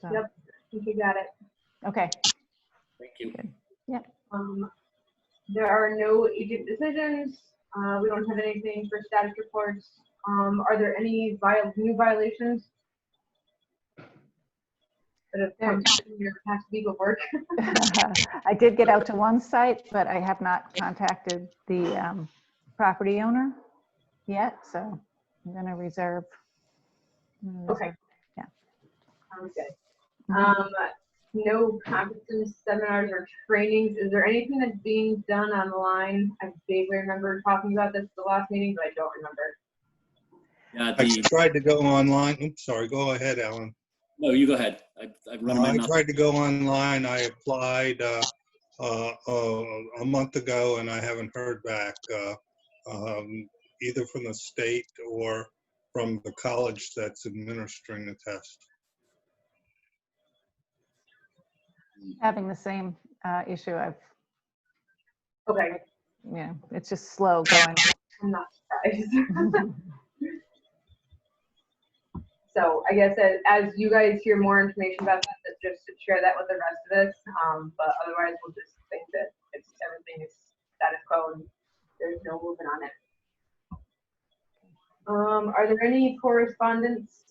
So, Yep. think you got it. Okay, Thank you. Um, There are no agent decisions. Uh, We don't have anything for status reports. Um, Are there any viol- new violations? That have come from your past legal work? I did get out to one site, but I have not contacted the um, property owner yet, so I'm gonna reserve. I'm gonna Okay. reserve. Sounds good. Mhm. Um, no conferences, seminars, or trainings. Is there anything that's being done online? I vaguely remember talking about this at the last meeting, but I don't remember. Uh, I the, tried to go online, oops, sorry, go ahead, Alan. no, you go ahead. I- I've run my I mouth. tried to go online, I applied uh, uh, uh, a month ago, and I haven't heard back, uh, um, either from the state or from the college that's administering the test. Having the same uh, issue, I've, Okay, yeah, it's just slow going. I'm not surprised. so I guess as, as you guys hear more information about that, that just to share that with the rest of us. Um, but otherwise, we'll just think that it's, everything is status quo and there's no moving on it. Um, are there any correspondence?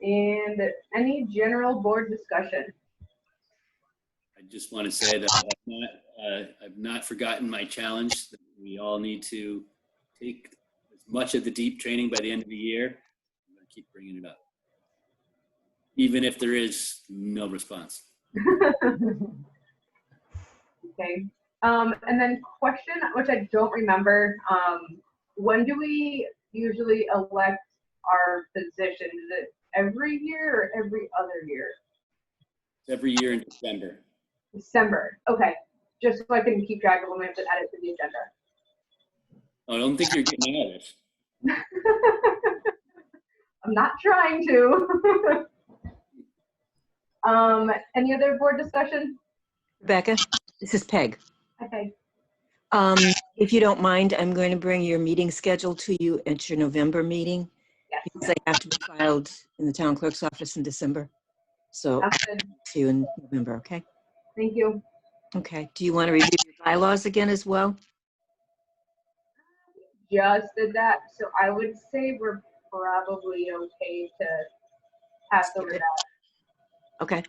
And any general board discussion? I just want to say that I've not, uh, I've not forgotten my challenge. that We all need to take as much of the deep training by the end of the year. I'm going to keep bringing it up. Even if there is no response. Okay. Um, and then question, which I don't remember, um, when do we usually elect our position? Is it every year or every other year? It's Every year in December. December. Okay. Just so I can keep track of when we have to add it to the agenda. Oh, I don't think you're getting out of this. I'm not trying to. um, any other board discussion? Rebecca, this is Peg. Okay. Um, If you don't mind, I'm going to bring your meeting schedule to you at your November meeting Yes. because they have to be filed in the town clerk's office in December. So I'll Sounds good. see you in November, okay? Thank you. Okay. Do you want to review your bylaws again as well? Just did that. So I would say we're probably okay to pass over that. Okay.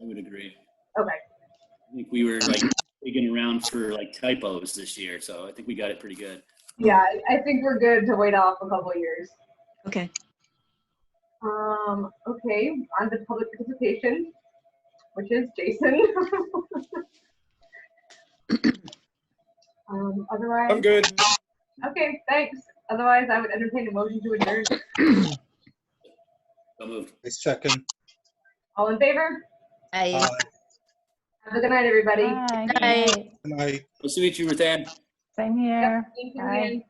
I would agree. Okay. I think we were like digging around for like typos this year, so I think we got it pretty good. Yeah, I- I think we're good to wait off a couple of years. Okay. Um, okay, on to public participation, which is Jason. Um, otherwise. I'm good. Okay, thanks. Otherwise, I would entertain a motion to adjourn. So moved. I second. All in favor? Aye. Have a good night, everybody. Bye. Bye. And I Nice to meet you, Ruthann. Same here. Thank you, Bye. Ian.